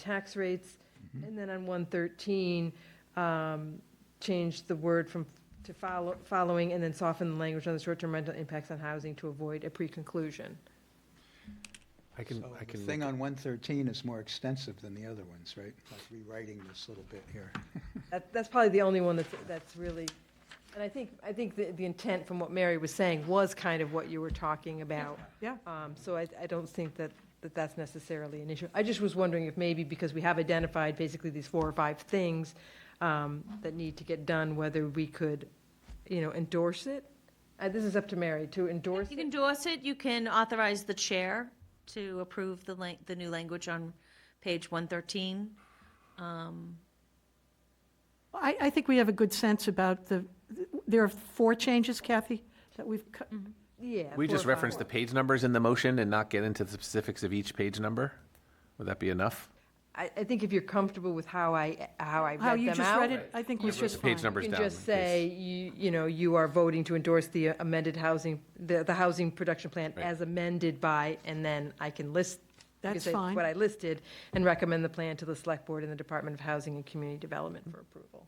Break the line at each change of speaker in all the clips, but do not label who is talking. tax rates. And then on 113, um, change the word from, to follow, following, and then soften the language on the short-term rental impacts on housing to avoid a pre-conclusion.
I can,
So
I
the
can,
thing
look-
on 113 is more extensive than the other ones, right? Like rewriting this little bit here.
That, that's probably the only one that's, that's really, and I think, I think the, the intent from what Mary was saying was kind of what you were talking about.
Yeah.
Um, so I, I don't think that, that that's necessarily an issue. I just was wondering if maybe, because we have identified basically these four or five things, um, that need to get done, whether we could, you know, endorse it? Uh, this is up to Mary, to endorse
You can
it?
endorse it, you can authorize the chair to approve the lang, the new language on page one thirteen.
I, I think we have a good sense about the, there are four changes, Kathy, that we've, cut-
Yeah.
we
four
just
or five.
reference the page numbers in the motion and not get into the specifics of each page number? Would that be enough?
I, I think if you're comfortable with how I, how I read them out.
how you just read it, I think was
Wrote the
just fine.
page numbers
You
down.
can just
in case-
say, you, you know, you are voting to endorse the amended housing, the, the housing production plan
Right.
as amended by, and then I can list. I can
That's
say
fine.
What I listed, and recommend the plan to the select board and the Department of Housing and Community Development for approval.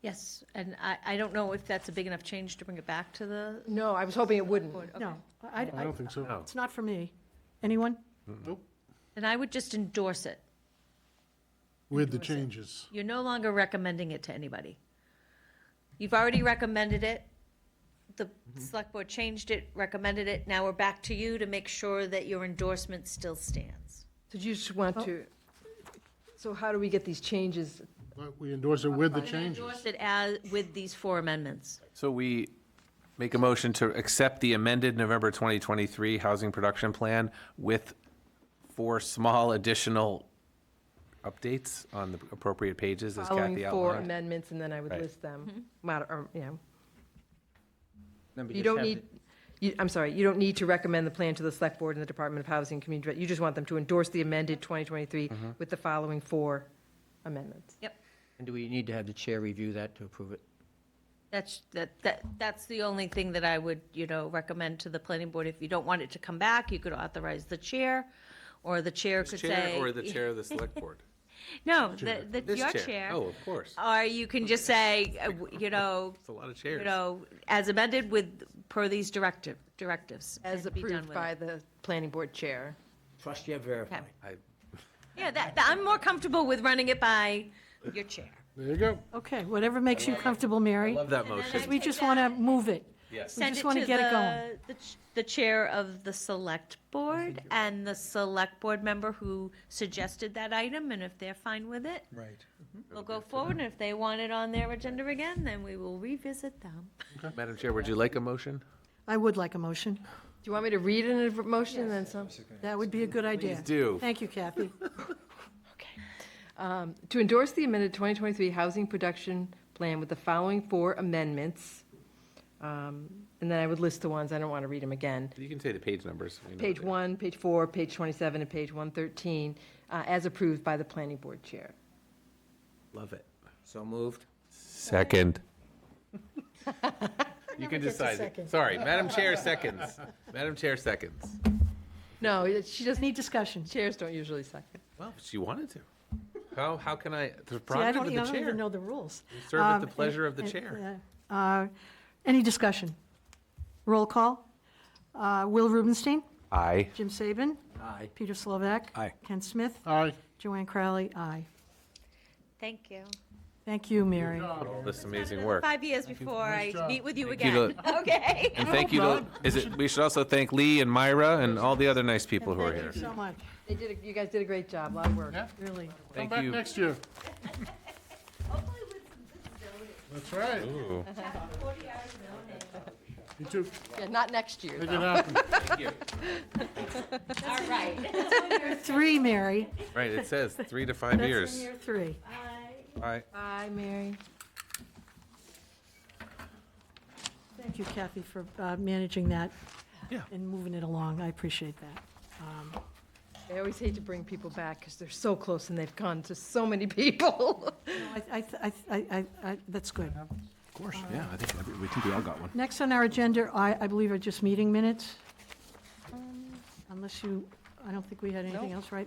Yes, and I, I don't know if that's a big enough change to bring it back to the
No, I was hoping it wouldn't.
board. Okay.
No, I,
I
I,
don't think so.
No.
it's not for me. Anyone?
And I would just endorse it.
With the changes.
You're no longer recommending it to anybody. You've already recommended it. The select board changed it, recommended it. Now we're back to you to make sure that your endorsement still stands.
So you just want to, so how do we get these changes?
But we endorse it with the
And I
changes.
Endorse it as, with these four amendments.
So we make a motion to accept the amended November 2023 Housing Production Plan with four small additional updates on the appropriate pages, as Kathy
Following four
outlined.
amendments, and then I would
Right.
list them, Mod- or, you know,
Then we
You don't
just have
need, you, I'm sorry, you don't need to recommend the plan to the Select Board and the Department of Housing and Community, Development. you just want them to endorse the amended 2023
Mm-hmm.
with the following four amendments.
Yep.
the- And do we need to have the chair review that to approve it?
That's, that, that, that's the only thing that I would, you know, recommend to the planning board. If you don't want it to come back, you could authorize the chair, or the chair could say.
of the Select Board?
No, the, the, your chair.
Oh, of course.
Or you can just say, uh, you know,
It's a lot of
you
chairs.
know, as amended with, per these directive, directives.
As
and be done
approved
with
by
it.
the Planning Board Chair.
Trust you have verified.
Okay.
I-
Yeah, that, that- I'm more comfortable with running it by your chair.
There you go.
Okay, whatever makes you comfortable, Mary.
Love that
then
motion.
I-
We just want to move it.
Yes.
We
Send
just
it
wanna
to
get it
the-
going.
the ch- The chair of the select board and the select board member who suggested that item, and if they're fine with it,
Right.
we'll go forward, and if they want it on their agenda again, then we will revisit them.
Madam Chair, would you like a motion?
I would like a motion.
Do you want me to read it in a motion and then some?
That would be a good idea.
do.
Thank you, Kathy.
Um, To endorse the amended 2023 Housing Production Plan with the following four amendments, um, and then I would list the ones, I don't want to read them again.
You can say the page numbers. we know
Page
they-
one, page four, page 27, and page 113, uh, as approved by the Planning Board Chair.
Love it. So moved.
Second. You can decide. Sorry, Madam Chair seconds. Madam Chair seconds.
No, it- she doesn't,
Need discussion. See,
chairs don't usually second.
Well, if she wanted to. How, how can I, the
I
prerogative of
don't, I
the
don't even
chair.
know the rules.
We Serve at
Um,
the pleasure of the
and-
chair.
uh, uh, Any discussion? Roll call. Uh, Will Rubenstein?
Aye.
Jim Saban?
Aye.
Peter Slovak?
Aye.
Ken Smith?
Aye.
Joanne Crowley? Aye.
Thank you.
Thank you, Mary.
This amazing work.
Five years before I
job.
meet with you
you
again, okay?
And thank you to, is it, we should also thank Lee and Myra and all the other nice people who are here.
Thank you so much,
They did, a- you guys did a great job, a lot of work.
Yeah.
really.
Come
Thank
back
you.
next year.
Hopefully with some good zoning,
That's right.
Ooh.
chapter 40 hours zoning.
You too.
Yeah, not next year,
Make
though.
it happen.
All right.
Three, Mary.
Right, it says three to five
That's in
years.
year three.
Aye.
Bye, Mary.
Thank you, Kathy, for uh, managing that
Yeah.
and moving it along. I appreciate that. Um,
I always hate to bring people back because they're so close and they've gone to so many people.
I, I, I, I, I- that's good.
Of course, yeah, I think, every- we think we all got one.
Next on our agenda, I, I believe are just meeting minutes. Unless you, I don't think we had anything
Nope.
else, right?